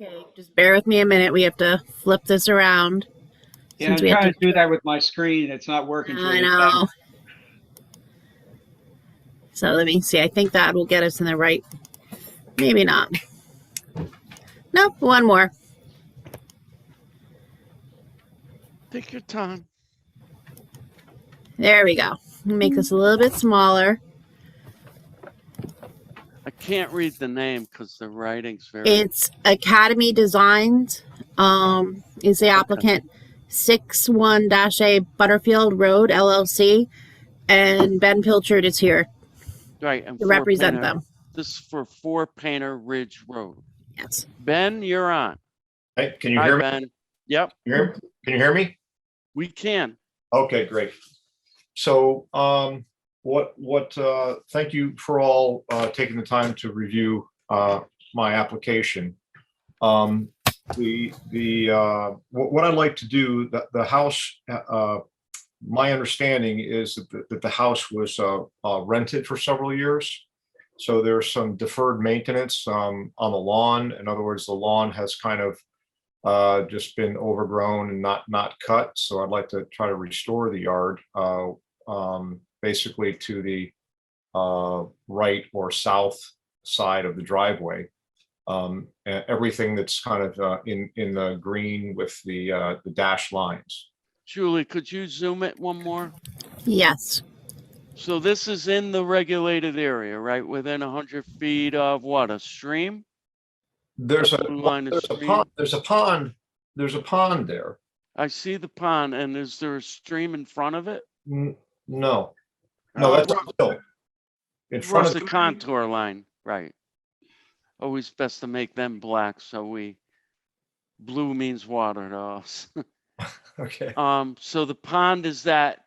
Okay, just bear with me a minute. We have to flip this around. Yeah, I'm Since we have trying to do that with my screen. It's not working. for I me. know. uh, So let me see. I think that will get us in the right. Maybe not. Nope, one more. Take your time. There we go. Make this a little bit smaller. I can't read the name because the writing's very. It's Academy Designs. Um, is the applicant six one dash A Butterfield Road LLC, and Ben Pilchard is here right. And to for represent Painter- them. This is for Four Painter Ridge Road. Yes. Ben, you're on. Hey, can you Hi, hear me? Ben. Yep, Can you hear- can you hear me? we can. Okay, great. So um, what, what, uh, thank you for all uh, taking the time to review uh, my application. Um, The, the, uh, what what I'd like to do, the, the house, uh, my understanding is that the- that the house was uh, uh, rented for several years. So there's some deferred maintenance um, on the lawn. In other words, the lawn has kind of uh, just been overgrown and not, not cut. So I'd like to try to restore the yard, uh, um, basically to the, uh, right or south side of the driveway. Um, e- everything that's kind of, uh, in, in the green with the, uh, the dash lines. Julie, could you zoom it one more? Yes. So this is in the regulated area, right? Within hundred feet of what? A stream? There's a, Blue line is there's a stream. pond, there's a pond, there's a pond there. I see the pond and is there a stream in front of it? N- No, no, Uh, that's a hill. In front Across of, the contour line, right. Always best to make them black, so we, blue means water to us. okay. Um, so the pond is that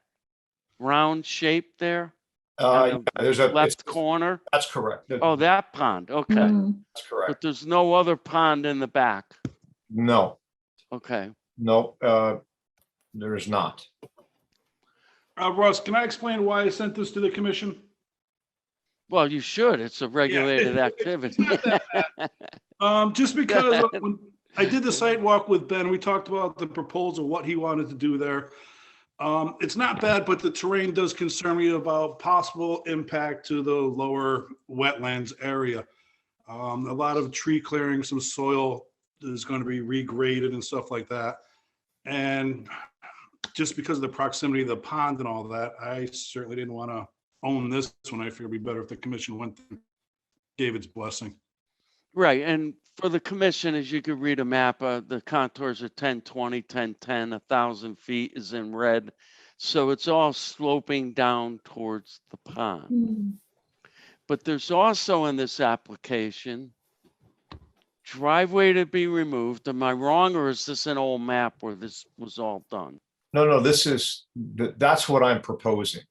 round shape there, Uh, the yeah, there's a, it's- Oh, left corner? that's correct. That- Oh, that pond, okay. Mm. That's correct. But there's no other pond in the back, No, okay. no, uh, there is not. Uh, Russ, can I explain why I sent this to the commission? Well, you should, it's a regulated it's- activity. not that Um, just because when I did the site walk with Ben, we talked about the proposal, what he wanted to do there. Um, it's not bad, but the terrain does concern me about possible impact to the lower wetlands area. Um, a lot of tree clearing, some soil is going to be regraded and stuff like that. And just because of the proximity of the pond and all that, I certainly didn't want to own this one. I figured it'd be better if the commission went, and gave its blessing. Right, and for the commission, as you could read a map, uh, the contours are 10, 20, 10, 10, a thousand feet is in red. So it's all sloping down towards the pond. Mm. But there's also in this application, driveway to be removed. Am I wrong or is this an old map where this was all done? No, no, this is, th- that's what I'm proposing.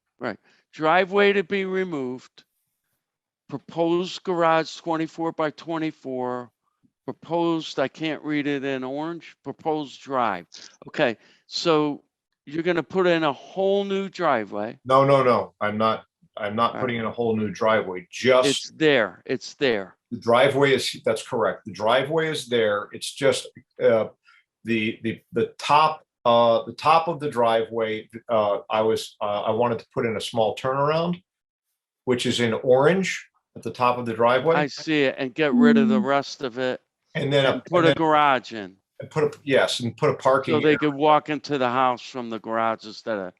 Driveway to be removed. Proposed garage twenty-four by twenty-four. Proposed, I can't read it in orange, proposed drive. Okay, so you're gonna put in a whole new driveway. No, no, no, I'm not, I'm not Alright. putting in a whole new driveway, It's just there, it's there. the driveway is, that's correct. The driveway is there. It's just, uh, the, the, the top, uh, the top of the driveway, uh, I was, uh, I wanted to put in a small turnaround, which is in orange at the top of the I driveway. see it and get rid of the Mm. rest of it And then, and a- put and a then garage in. put a, yes, and put a parking. So they area. could walk into the house from the garage instead of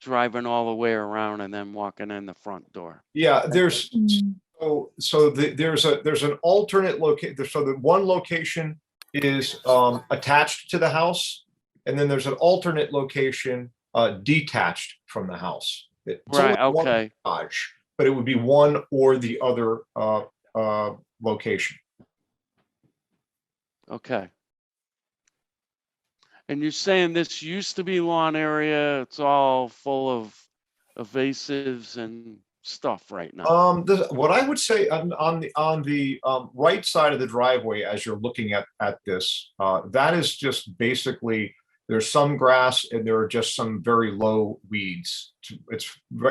driving all the way around and then walking in the front door. Yeah, there's, Mm. So, so the, there's a, there's an alternate location, so the one location is, um, attached to the house. And then there's an alternate location, uh, detached from the house. It's only Right, one okay. garage, But it would be one or the other, uh, uh, location. Okay. And you're saying this used to be lawn area, it's all full of evasives and stuff right now. Um, the, what I would say on, on the, on the, um, right side of the driveway, as you're looking at, at this, uh, that is just basically, there's some grass and there are just some very low weeds. It's ve-